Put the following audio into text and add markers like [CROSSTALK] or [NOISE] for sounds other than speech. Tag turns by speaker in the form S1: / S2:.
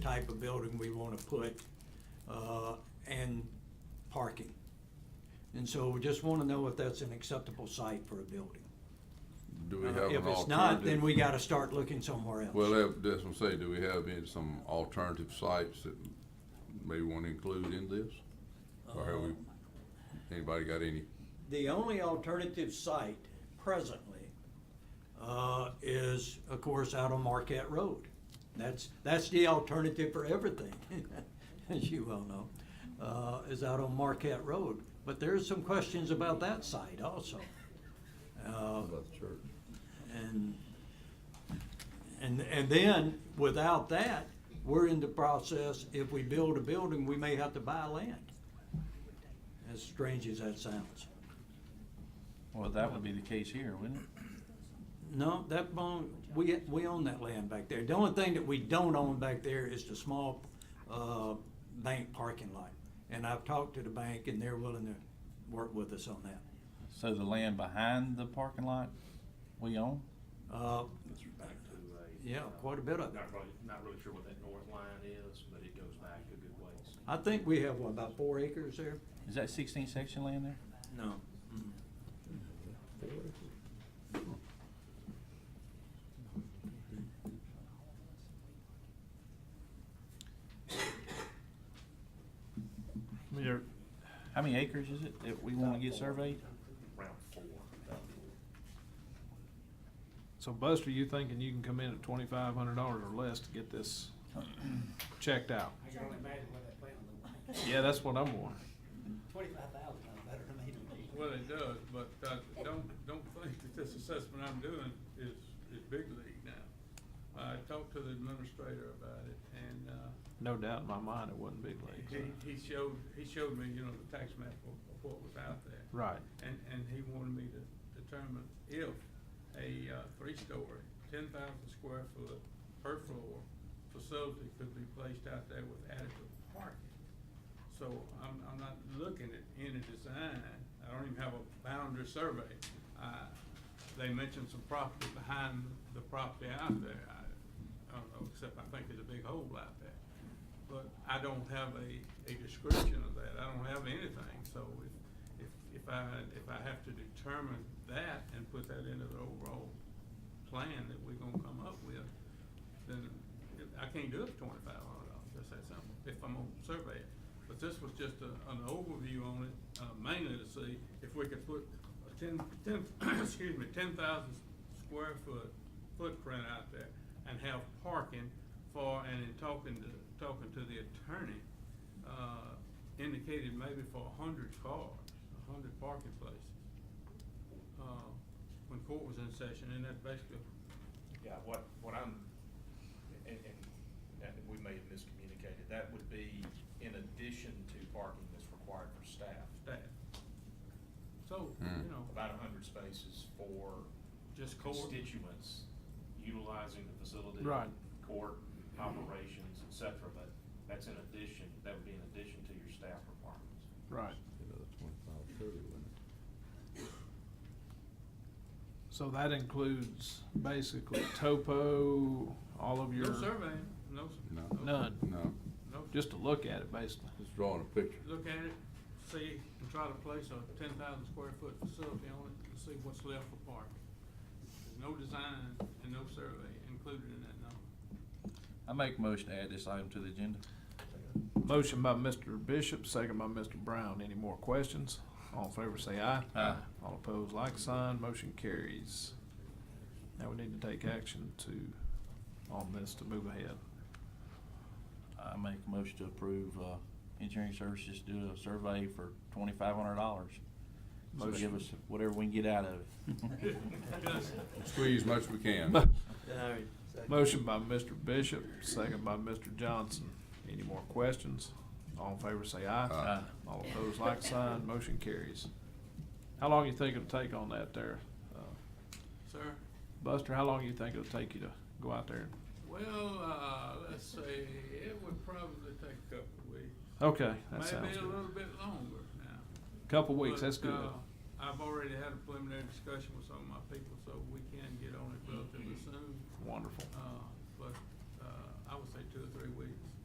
S1: type of building we want to put, uh, and parking. And so we just want to know if that's an acceptable site for a building.
S2: Do we have
S1: Uh,
S2: an alternative?
S1: If it's not, then we got to start looking somewhere else.
S2: Well, that- that's what I'm saying, do we have any, some alternative sites that maybe want to include in this? Or have
S1: Um,
S2: we, anybody got any?
S1: The only alternative site presently uh, is, of course, out on Marquette Road. That's, that's the alternative for everything, [LAUGHS] as you well know, uh, is out on Marquette Road. But there's some questions about that site also. Uh,
S2: the church?
S1: and, and, and then, without that, we're in the process, if we build a building, we may have to buy land. As strange as that sounds.
S3: Well, that would be the case here, wouldn't it?
S1: No, that bone, we, we own that land back there. The only thing that we don't own back there is the small, uh, bank parking lot. And I've talked to the bank and they're willing to work with us on that.
S3: So the land behind the parking lot, we own?
S1: Uh,
S4: It's back to a.
S1: yeah, quite a bit of it.
S4: Not really, not really sure what that north line is, but it goes back a good ways.
S1: I think we have, what, about four acres there?
S3: Is that sixteen section land there?
S1: No.
S5: I mean, there,
S3: How many acres is it that we wanna get surveyed?
S4: Round four. about four.
S5: so Buster, you thinking you can come in at twenty-five hundred dollars or less to get this checked out?
S6: I can only imagine what that plan would look like.
S5: Yeah, that's what I'm wondering.
S6: Twenty-five thousand, I'm better than me.
S7: Well, it does, but uh, don't, don't think that this assessment I'm doing is, is big league now. I talked to the administrator about it, and uh,
S5: No doubt in my mind it wasn't big leagues.
S7: he, he showed, he showed me, you know, the tax map of of what was out there.
S5: Right.
S7: And, and he wanted me to determine if a uh, three-story, ten thousand square foot per floor facility could be placed out there with adequate parking. So I'm, I'm not looking at any design, I don't even have a boundary survey. I- They mentioned some property behind the property out there, I, I don't know, except I think there's a big hole out there. But I don't have a, a description of that, I don't have anything, so if, if, if I, if I have to determine that and put that into the overall plan that we're gonna come up with, then it- I can't do it for twenty-five hundred dollars, that's that simple, if I'm gonna survey it. But this was just a, an overview on it, uh, mainly to see if we could put a ten, ten, [COUGHS] excuse me, ten thousand square foot footprint out there and have parking for, and in talking to, talking to the attorney, uh, indicated maybe for a hundred cars, a hundred parking places. Uh, when court was in session, and that basically,
S4: Yeah, what, what I'm, and, and, and we may have miscommunicated, that would be in addition to parking that's required for staff.
S7: that. So,
S2: Hmm.
S7: you know,
S4: About a hundred spaces for
S7: just court,
S4: constituents utilizing the facility.
S5: Right.
S4: Court operations, et cetera, but that's in addition, that would be in addition to your staff requirements.
S5: Right. So that includes basically topo, all of your,
S7: no surveying, no. s-
S2: No.
S5: None.
S2: No,
S7: No,
S5: just to look at it basically.
S2: just drawing a
S7: [LAUGHS]
S2: picture.
S7: look at it, see, and try to place a ten thousand square foot facility on it and see what's left for parking. There's no design and no survey included in that number.
S3: I make a motion to add this item to the agenda.
S5: Motion by Mr. Bishop, second by Mr. Brown. Any more questions? All in favor say aye.
S3: Aye.
S5: All opposed, like sign. Motion carries. Now we need to take action to, on this to move ahead.
S3: I make a motion to approve, uh, engineering services to do a survey for twenty-five hundred dollars. So give
S5: Motion.
S3: us whatever we can get out of it.
S2: [LAUGHS] Squeeze much we can.
S5: Motion by Mr. Bishop, second by Mr. Johnson. Any more questions? All in favor say aye.
S2: Aye.
S5: All opposed, like sign. Motion carries. How long you think it'll take on that there? Uh,
S7: Sir?
S5: Buster, how long you think it'll take you to go out there?
S7: Well, uh, let's say it would probably take a couple of weeks.
S5: Okay, Oh, that sounds
S7: Maybe a little
S5: good.
S7: bit longer now.
S5: Couple weeks,
S7: But,
S5: that's good.
S7: uh, I've already had a preliminary discussion with some of my people, so we can get on it relatively soon.
S5: Wonderful.
S7: Uh,